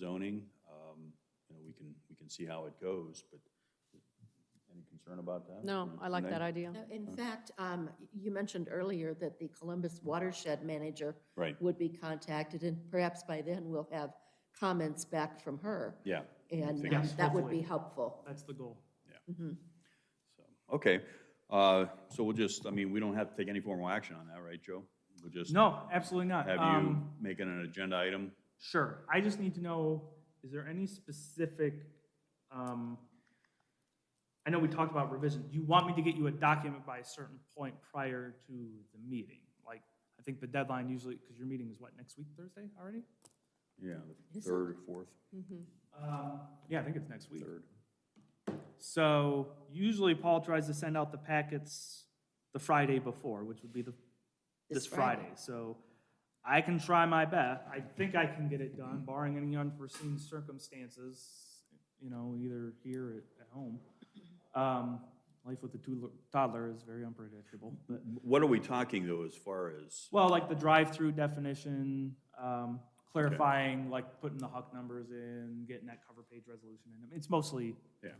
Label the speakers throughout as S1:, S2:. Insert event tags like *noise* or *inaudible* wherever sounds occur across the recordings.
S1: zoning, um, you know, we can, we can see how it goes, but any concern about that?
S2: No, I like that
S1: Renee?
S2: idea.
S3: No, In fact, um, you mentioned earlier that the Columbus Watershed Manager
S1: Right,
S3: would be contacted, and perhaps by then we'll have comments back from her.
S1: yeah.
S3: And
S1: Figure-
S3: um, that would be
S4: hopefully.
S3: helpful.
S4: That's the goal.
S1: so, Okay, uh, so we'll just, I mean, we don't have to take any formal action on that, right, Joe? We'll just
S4: No, absolutely not.
S1: have you
S4: Um,
S1: make it an agenda item?
S4: Sure. I just need to know, is there any specific, um, I know we talked about revision. You want me to get you a document by a certain point prior to the meeting? Like, I think the deadline usually, because your meeting is what, next week, Thursday already?
S1: Yeah, the
S3: Is it-
S1: third or fourth,
S4: Um, Yeah, I think it's next week.
S1: third.
S4: So usually Paul tries to send out the packets the Friday before, which would be the,
S3: This
S4: this Friday. So I can try my best. I think I can get it done barring any unforeseen circumstances, you know, either here or at home. Um, Life with a toodler- toddler is very unpredictable, but,
S1: What are we talking, though, as far as,
S4: well, like the drive-through definition, um, clarifying, like putting the Huck numbers in, getting that cover page resolution in. I mean, It's mostly
S1: yeah,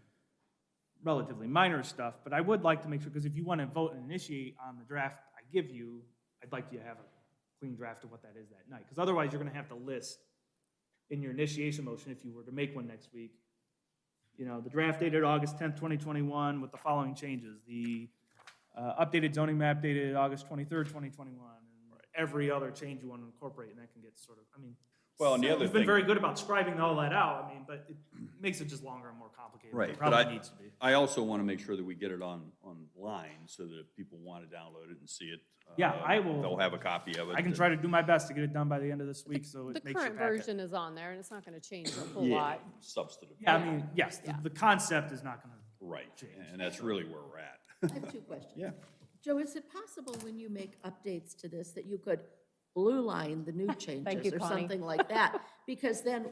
S4: relatively minor stuff, but I would like to make sure, because if you want to vote and initiate on the draft I give you, I'd like you to have a clean draft of what that is that night, because otherwise you're going to have to list in your initiation motion, if you were to make one next week, you know, the draft dated August tenth, twenty twenty-one, with the following changes, the uh, updated zoning map dated August twenty-third, twenty twenty-one, and every other change you want to incorporate, and that can get sort of, I mean.
S1: Well, and the
S4: so
S1: other
S4: You've been
S1: thing-
S4: very good about scribing all that out, I mean, but it makes it just longer and more complicated. than
S1: right.
S4: it
S1: but I-
S4: Probably needs to be.
S1: I also want to make sure that we get it on, online, so that if people want to download it and see it.
S4: Yeah,
S1: uh,
S4: I will-
S1: They'll have a copy of it.
S4: I can try to do my best to get it done by the end of this week, so
S2: The
S4: it makes your
S2: current
S4: packet.
S2: version is on there, and it's not going to change a whole
S1: Yeah,
S2: lot.
S1: substantive,
S4: Yeah, I mean, yes, the,
S2: Yeah.
S4: the concept is not gonna,
S1: right,
S4: Change.
S1: and that's really where we're at. *laughs*
S3: I have two questions. Joe, is it possible when you make updates to this that you could blue line
S2: *laughs*
S3: the new changes
S2: you,
S3: or
S2: Connie.
S3: something like that?
S2: *laughs*
S3: Because then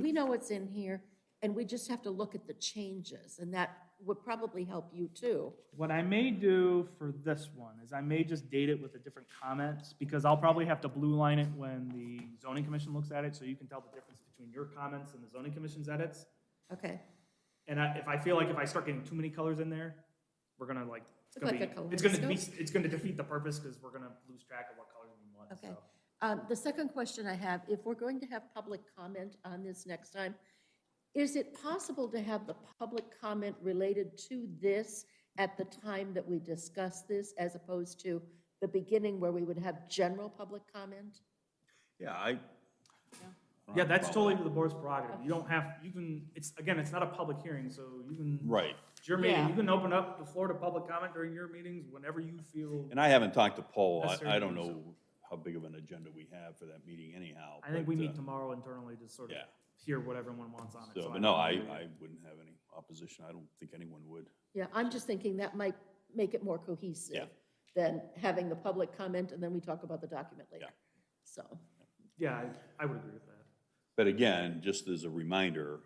S3: we know what's in here and we just have to look at the changes and that would probably help you too.
S4: what I may do for this one is I may just date it with the different comments, because I'll probably have to blue line it when the zoning commission looks at it, so you can tell the difference between your comments and the zoning commission's edits.
S3: Okay,
S4: And I, if I feel like if I start getting too many colors in there, we're gonna like, it's
S3: Look
S4: gonna
S3: like
S4: be,
S3: a
S4: it's gonna be,
S3: kaleidoscope.
S4: it's gonna defeat the purpose, because we're gonna lose track of what colors we want,
S3: Okay.
S4: so.
S3: Um, The second question I have, if we're going to have public comment on this next time, is it possible to have the public comment related to this at the time that we discuss this as opposed to the beginning where we would have general public comment?
S1: Yeah, I.
S4: Yeah, that's totally the board's prerogative. You don't have, you can, it's, again, it's not a public hearing, so you can.
S1: Right,
S4: It's your meeting.
S3: Yeah.
S4: You can open up the floor to public comment during your meetings whenever you feel.
S1: and I haven't talked to Paul, I, I
S4: Necessary to
S1: don't
S4: do so.
S1: know how big of an agenda we have for that meeting anyhow.
S4: I think
S1: but,
S4: we
S1: uh,
S4: meet tomorrow internally to sort of
S1: yeah.
S4: hear what everyone wants on it.
S1: So,
S4: I
S1: but no,
S4: don't
S1: I,
S4: really-
S1: I wouldn't have any opposition, I don't think anyone would.
S3: Yeah, I'm just thinking that might make it more cohesive than having the public comment and then we talk about the document later.
S1: Yeah.
S3: So,
S4: Yeah, I- I would agree with that.
S1: But again, just as a reminder,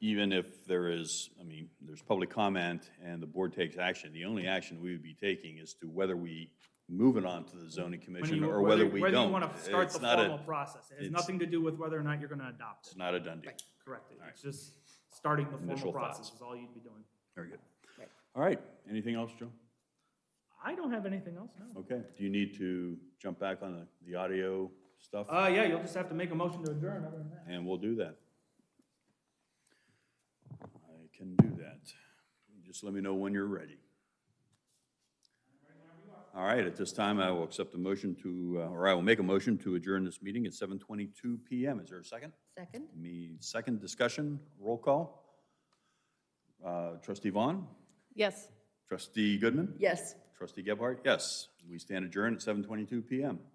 S1: even if there is, I mean, there's public comment and the board takes action, the only action we would be taking is to whether we move it on to the zoning
S4: When
S1: commission
S4: you-
S1: or whether we
S4: Whether you
S1: don't.
S4: want to start the
S1: It's not a-
S4: formal process. It has
S1: it's-
S4: nothing to do with whether or not you're going to adopt
S1: It's
S4: it.
S1: not a done deal.
S4: Correct it. It's just starting the formal
S1: Initial
S4: process
S1: thoughts.
S4: is all you'd be doing.
S1: Very good.
S3: Right.
S1: All right, anything else, Joe?
S4: I don't have anything else, no.
S1: Okay, do you need to jump back on the, the audio stuff?
S4: Uh, yeah, you'll just have to make a motion to adjourn other than that.
S1: And we'll do that. I can do that. Just let me know when you're ready. All right, at this time, I will accept a motion to, uh, or I will make a motion to adjourn this meeting at 7:22 PM. Is there a second?
S3: second?
S1: Me, second discussion, roll call. Uh, Trustee Vaughn,
S2: Yes.
S1: trustee Goodman,
S3: Yes.
S1: trustee Gebhardt, yes. We stand adjourned at 7:22 PM.